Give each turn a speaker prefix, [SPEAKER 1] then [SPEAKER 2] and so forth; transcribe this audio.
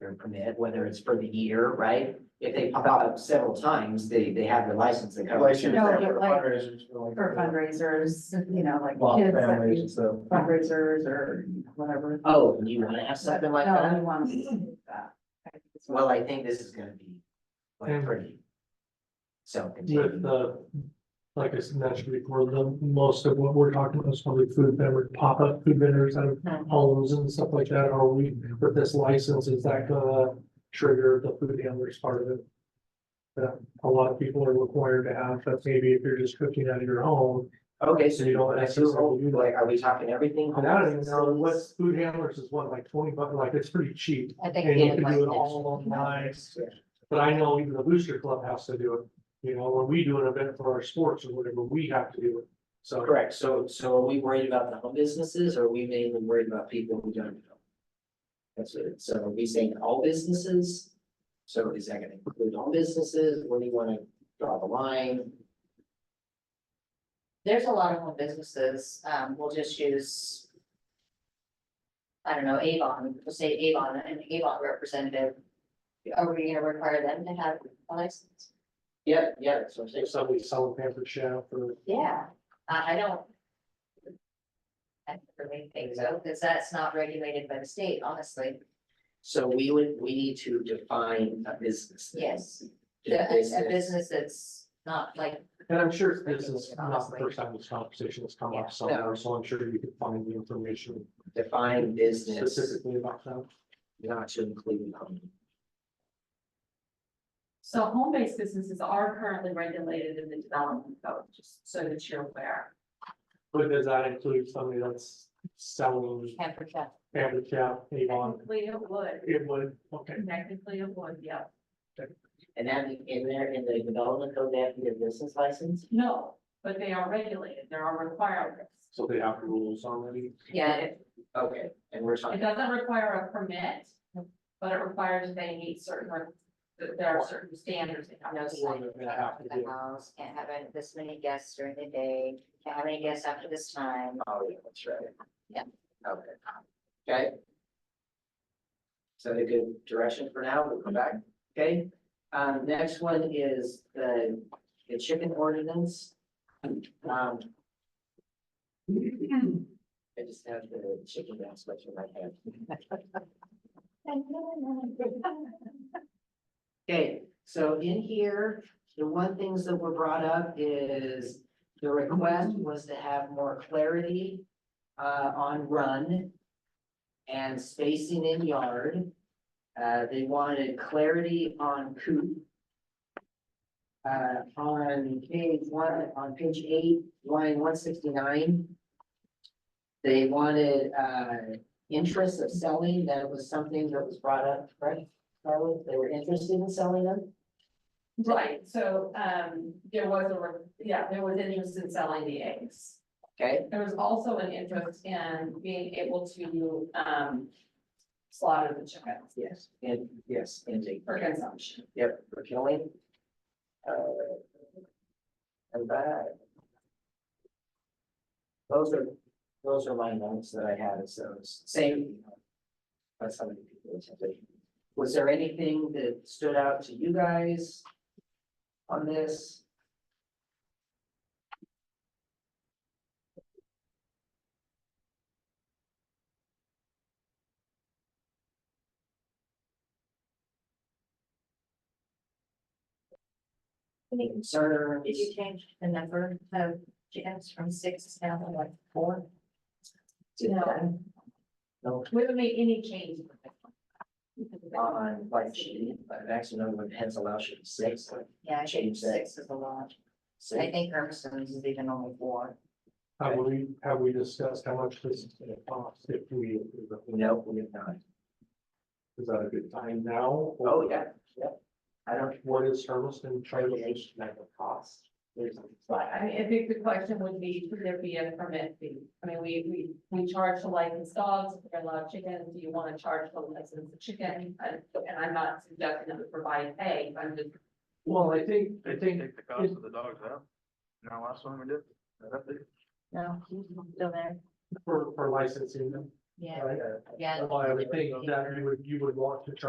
[SPEAKER 1] their permit, whether it's for the year, right? If they pop out several times, they, they have their license that covers.
[SPEAKER 2] No, but like, for fundraisers, you know, like kids that do fundraisers or whatever.
[SPEAKER 1] Oh, and you wanna have something like
[SPEAKER 2] No, we
[SPEAKER 1] that?
[SPEAKER 2] want to do that. I think it's-
[SPEAKER 1] Well, I think this is gonna be like pretty. So.
[SPEAKER 3] With the, like I said, naturally, before the, most of what we're talking about is probably food vendor, pop-up food vendors out of homes and stuff like that, are we, with this license, is that gonna trigger the food handlers part of it? That a lot of people are required to have, but maybe if you're just cooking out of your home,
[SPEAKER 1] Okay, so you don't,
[SPEAKER 3] That's
[SPEAKER 1] that's your whole,
[SPEAKER 3] just-
[SPEAKER 1] like, are we talking everything?
[SPEAKER 3] and I don't even know what's food handlers is what, like twenty bucks, like it's pretty cheap.
[SPEAKER 4] I think.
[SPEAKER 3] And
[SPEAKER 4] they
[SPEAKER 3] you can
[SPEAKER 4] would
[SPEAKER 3] do it
[SPEAKER 4] like
[SPEAKER 3] all online, but I know even the booster club has to do it, you know, when we do an event for our sports or whatever, we have to do it. So.
[SPEAKER 1] Correct, so, so are we worried about the home businesses, or are we mainly worried about people who don't know? That's it, so are we saying all businesses? So is that gonna include all businesses, where do you wanna draw the line?
[SPEAKER 4] There's a lot of home businesses, um, we'll just use. I don't know, Avon, we'll say Avon, an Avon representative. Are we gonna require them to have a license?
[SPEAKER 1] Yeah, yeah, that's what I'm saying.
[SPEAKER 3] If somebody's selling pampered chef or.
[SPEAKER 4] Yeah, I, I don't. I don't really think so, because that's not regulated by the state, honestly,
[SPEAKER 1] so we would, we need to define a business. then.
[SPEAKER 4] yes,
[SPEAKER 1] Do
[SPEAKER 4] a, a
[SPEAKER 1] business-
[SPEAKER 4] business that's not like,
[SPEAKER 3] And I'm sure this is not the first time this conversation has come
[SPEAKER 4] Yeah.
[SPEAKER 3] up somewhere, so I'm sure you could find the information
[SPEAKER 1] Define business,
[SPEAKER 3] specifically about that.
[SPEAKER 1] not to include home.
[SPEAKER 5] So home-based businesses are currently regulated in the development code, just so that you're aware.
[SPEAKER 3] But does that include somebody that's selling
[SPEAKER 4] can't protect.
[SPEAKER 3] pampered chef, Avon?
[SPEAKER 5] Technically, it would,
[SPEAKER 3] It would, okay,
[SPEAKER 5] technically, it would, yeah.
[SPEAKER 1] And that, in there, in the development code, they have to get a business license?
[SPEAKER 5] No, but they are regulated, there are requirements.
[SPEAKER 3] so they have rules already.
[SPEAKER 4] Yeah, it-
[SPEAKER 1] Okay, and we're
[SPEAKER 5] It
[SPEAKER 1] talking,
[SPEAKER 5] doesn't require a permit, but it requires they meet certain, re- that there are certain standards. they have
[SPEAKER 4] No
[SPEAKER 5] to
[SPEAKER 4] sign
[SPEAKER 3] We're gonna have to
[SPEAKER 4] of
[SPEAKER 3] do
[SPEAKER 4] the
[SPEAKER 3] it.
[SPEAKER 4] house, can't have any- this many guests during the day, can't have any guests after this time.
[SPEAKER 1] oh, yeah, that's right.
[SPEAKER 4] Yeah.
[SPEAKER 1] Okay. Okay. Is that a good direction for now? We'll come back, okay? Um, next one is the, the chicken ordinance. Um. I just have the chicken aspect in my head. Okay, so in here, the one things that were brought up is the request was to have more clarity uh, on run and spacing in yard. Uh, they wanted clarity on coop. Uh, on page one, on page eight, line one sixty-nine. They wanted uh, interest of selling, that was something that was brought up, right? Carlos, they were interested in selling them?
[SPEAKER 5] Right, so, um, there was a, re- yeah, there was interest in selling the eggs.
[SPEAKER 1] Okay,
[SPEAKER 5] There was also an interest in being able to, um, slaughter the chickens
[SPEAKER 1] yes, and, yes, and they-
[SPEAKER 5] for consumption.
[SPEAKER 1] Yep, for killing. Uh, And that. Those are, those are my notes that I had, so it's same. That's how many people attended. Was there anything that stood out to you guys? On this?
[SPEAKER 4] Did
[SPEAKER 1] Concerns?
[SPEAKER 4] you change the number of chickens from six down to like four?
[SPEAKER 5] No.
[SPEAKER 1] No.
[SPEAKER 5] We haven't made any changes. Uh,
[SPEAKER 1] On, like, she, like, actually, no, when hens allow she to six, like,
[SPEAKER 4] Yeah, I think
[SPEAKER 1] Change that.
[SPEAKER 4] six is a lot. I
[SPEAKER 1] six.
[SPEAKER 4] think Hermiston's is even only four.
[SPEAKER 3] Have we, have we discussed how much this is gonna cost if we, approve it?
[SPEAKER 1] No, we have not.
[SPEAKER 3] is that a good time now?
[SPEAKER 1] Oh, yeah, yeah. I don't,
[SPEAKER 3] What is Hermiston charging?
[SPEAKER 1] regulation of the cost. There's, like,
[SPEAKER 5] I mean, I think the question would be, could there be a permit fee? I mean, we, we, we charge for licensed dogs, if they're allowed chickens, do you wanna charge for licensed chicken? And, and I'm not suggesting that we provide pay, I'm just,
[SPEAKER 3] Well, I think, I think
[SPEAKER 6] Take the cost of the dogs out. You know, last one we did, I think.
[SPEAKER 4] No, still there.
[SPEAKER 3] for, for licensing them,
[SPEAKER 4] Yeah,
[SPEAKER 3] right?
[SPEAKER 4] yeah.
[SPEAKER 3] Well, I would think that you would, you would want to charge